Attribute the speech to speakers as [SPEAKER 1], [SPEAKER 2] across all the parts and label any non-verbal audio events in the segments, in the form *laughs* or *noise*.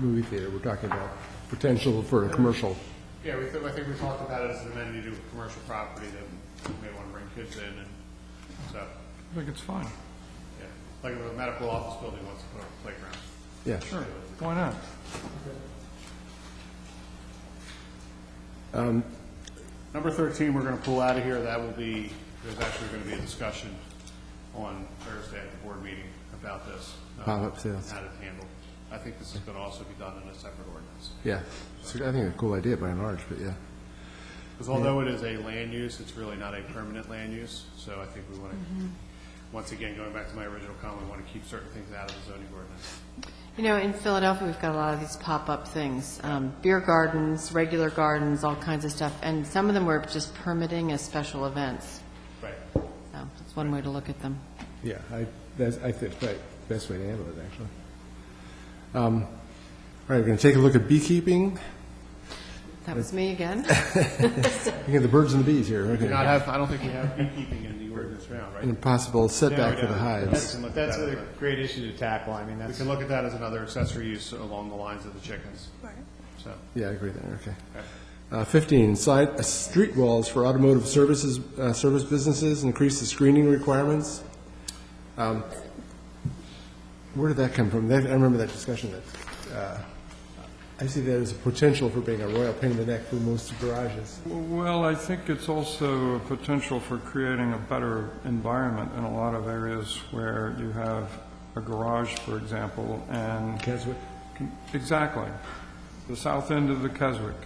[SPEAKER 1] movie theater. We're talking about potential for a commercial.
[SPEAKER 2] Yeah, we, thought- I think we talked about it as an amenity to a commercial property that we may want to bring kids in and so,
[SPEAKER 3] I think it's fine.
[SPEAKER 2] yeah. Like if a medical office building wants to put up a playground.
[SPEAKER 1] Yeah.
[SPEAKER 3] Sure, why not?
[SPEAKER 2] Number 13, we're going to pull out of here. That will be, there's actually going to be a discussion on Thursday at the board meeting about this. uh,
[SPEAKER 1] Pop-up sales.
[SPEAKER 2] How to handle. I think this is going to also be done in a separate ordinance.
[SPEAKER 1] Yeah. It's, I think, a cool idea by and large, but yeah.
[SPEAKER 2] Because although it is a land use, it's really not a permanent land use. So I think we want to, once again, going back to my original comment, we want to keep certain things out of the zoning ordinance.
[SPEAKER 4] You know, in Philadelphia, we've got a lot of these pop-up things, um, beer gardens, regular gardens, all kinds of stuff, and some of them were just permitting as special events.
[SPEAKER 2] Right.
[SPEAKER 4] So that's one way to look at them.
[SPEAKER 1] Yeah, I, that's, I think, right, best way to handle it, actually. Um, All right, we're going to take a look at beekeeping.
[SPEAKER 4] That was me again. *laughs*
[SPEAKER 1] You got the birds and the bees here,
[SPEAKER 2] Do
[SPEAKER 1] okay.
[SPEAKER 2] not have, I don't think we have beekeeping in the ordinance now, right?
[SPEAKER 1] And a possible setback
[SPEAKER 2] Yeah,
[SPEAKER 1] for the
[SPEAKER 2] yeah.
[SPEAKER 1] hives.
[SPEAKER 5] That's, that's a great issue to tackle. I mean,
[SPEAKER 2] We
[SPEAKER 5] that's,
[SPEAKER 2] can look at that as another accessory use along the lines of the chickens. Right. So,
[SPEAKER 1] Yeah, I agree there, okay. Uh, 15, side, uh, street walls for automotive services, uh, service businesses, increase the screening requirements. Um, Where did that come from? That- I remember that discussion that, uh, I see that as a potential for being a royal pain in the neck for most garages.
[SPEAKER 3] Well, I think it's also a potential for creating a better environment in a lot of areas where you have a garage, for example, and...
[SPEAKER 1] Keswick?
[SPEAKER 3] Exactly. The south end of the Keswick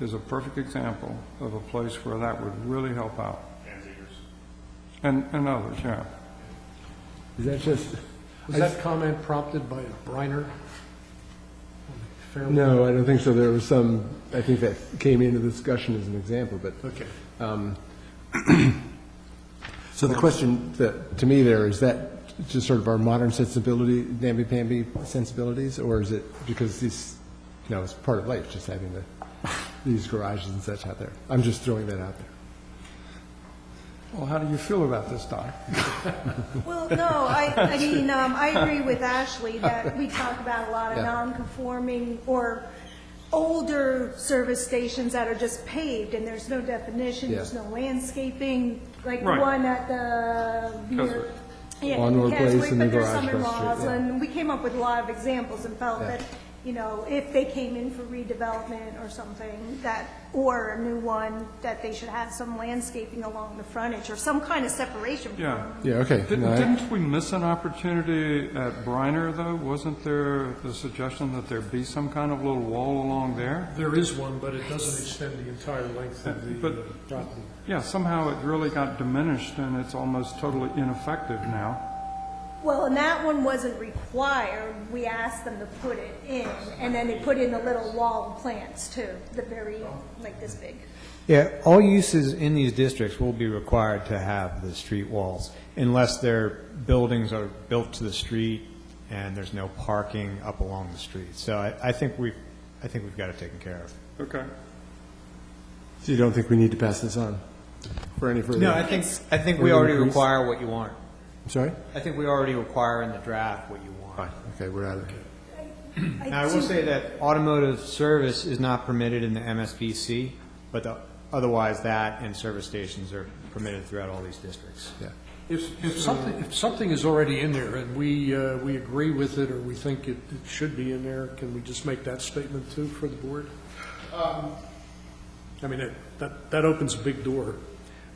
[SPEAKER 3] is a perfect example of a place where that would really help out. And, and others, yeah.
[SPEAKER 1] Is that just?
[SPEAKER 6] Was that comment prompted by Briner? Fair-
[SPEAKER 1] No, I don't think so. There was some, I think that came into the discussion as an example, but.
[SPEAKER 6] Okay.
[SPEAKER 1] So the question that, to me there, is that just sort of our modern sensibility, namby-pamby sensibilities, or is it because these, you know, it's part of life, just having the, these garages and such out there? I'm just throwing that out there.
[SPEAKER 3] Well, how do you feel about this, Doc?
[SPEAKER 7] Well, no, I, I mean, um, I agree with Ashley that we talk about a lot of
[SPEAKER 1] Yeah.
[SPEAKER 7] non-conforming or older service stations that are just paved and there's no definition, there's
[SPEAKER 1] Yeah.
[SPEAKER 7] no landscaping, like
[SPEAKER 3] Right.
[SPEAKER 7] one at the. near- Yeah,
[SPEAKER 1] Onward Place
[SPEAKER 7] Keswick,
[SPEAKER 1] and the
[SPEAKER 7] but there's
[SPEAKER 1] garage
[SPEAKER 7] some in
[SPEAKER 1] across the street,
[SPEAKER 7] Roslyn.
[SPEAKER 1] yeah.
[SPEAKER 7] And we came up with a lot of examples and felt
[SPEAKER 1] Yeah.
[SPEAKER 7] that, you know, if they came in for redevelopment or something, that, or a new one, that they should have some landscaping along the frontage or some kind of separation from
[SPEAKER 3] Yeah.
[SPEAKER 1] Yeah, okay.
[SPEAKER 3] Didn't
[SPEAKER 1] No, I-
[SPEAKER 3] didn't we miss an opportunity at Briner, though? Wasn't there the suggestion that there be some kind of little wall along there?
[SPEAKER 6] There is one, but it doesn't extend the entire length of the
[SPEAKER 3] But-
[SPEAKER 6] uh, property.
[SPEAKER 3] Yeah, somehow it really got diminished, and it's almost totally ineffective now.
[SPEAKER 7] Well, and that one wasn't required, we asked them to put it in, and then they put in the little wall of plants too, the very, like this big.
[SPEAKER 5] yeah, all uses in these districts will be required to have the street walls unless their buildings are built to the street and there's no parking up along the street. So I, I think we've, I think we've got it taken care of.
[SPEAKER 3] Okay.
[SPEAKER 1] So you don't think we need to pass this on for any further?
[SPEAKER 5] No, I think, I think we
[SPEAKER 1] Further
[SPEAKER 5] already
[SPEAKER 1] increase?
[SPEAKER 5] require what you want.
[SPEAKER 1] I'm sorry?
[SPEAKER 5] I think we already require in the draft what you want.
[SPEAKER 1] Okay, we're out of here.
[SPEAKER 5] Now, I will say that automotive service is not permitted in the MSBC, but the- otherwise that and service stations are permitted throughout all these districts.
[SPEAKER 1] Yeah.
[SPEAKER 6] If, if something, if something is already in there and we, uh, we agree with it or we think it, it should be in there, can we just make that statement too for the board? I mean, it- that, that opens a big door.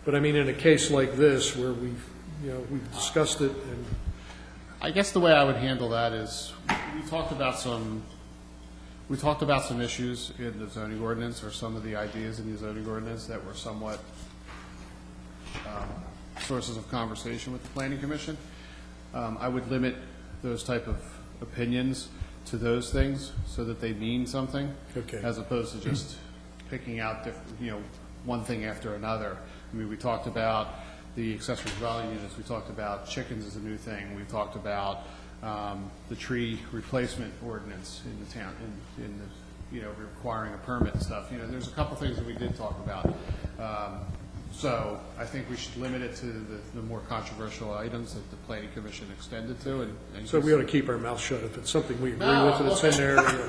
[SPEAKER 6] But I mean, in a case like this where we've, you know, we've discussed it and
[SPEAKER 2] I guess the way I would handle that is, we talked about some, we talked about some issues in the zoning ordinance, or some of the ideas in the zoning ordinance that were somewhat um, sources of conversation with the planning commission. Um, I would limit those type of opinions to those things, so that they mean something.
[SPEAKER 6] Okay.
[SPEAKER 2] As opposed to just picking out, diff- you know, one thing after another. I mean, we talked about the accessory dwelling units, we talked about chickens as a new thing, we talked about um, the tree replacement ordinance in the town, in, in the, you know, requiring a permit and stuff. You know, there's a couple things that we did talk about. Um, So I think we should limit it to the, the more controversial items that the planning commission extended to and. and
[SPEAKER 6] so we
[SPEAKER 2] just-
[SPEAKER 6] ought to keep our mouth shut. If it's something we agree
[SPEAKER 2] No,
[SPEAKER 6] with and it's in there, you know.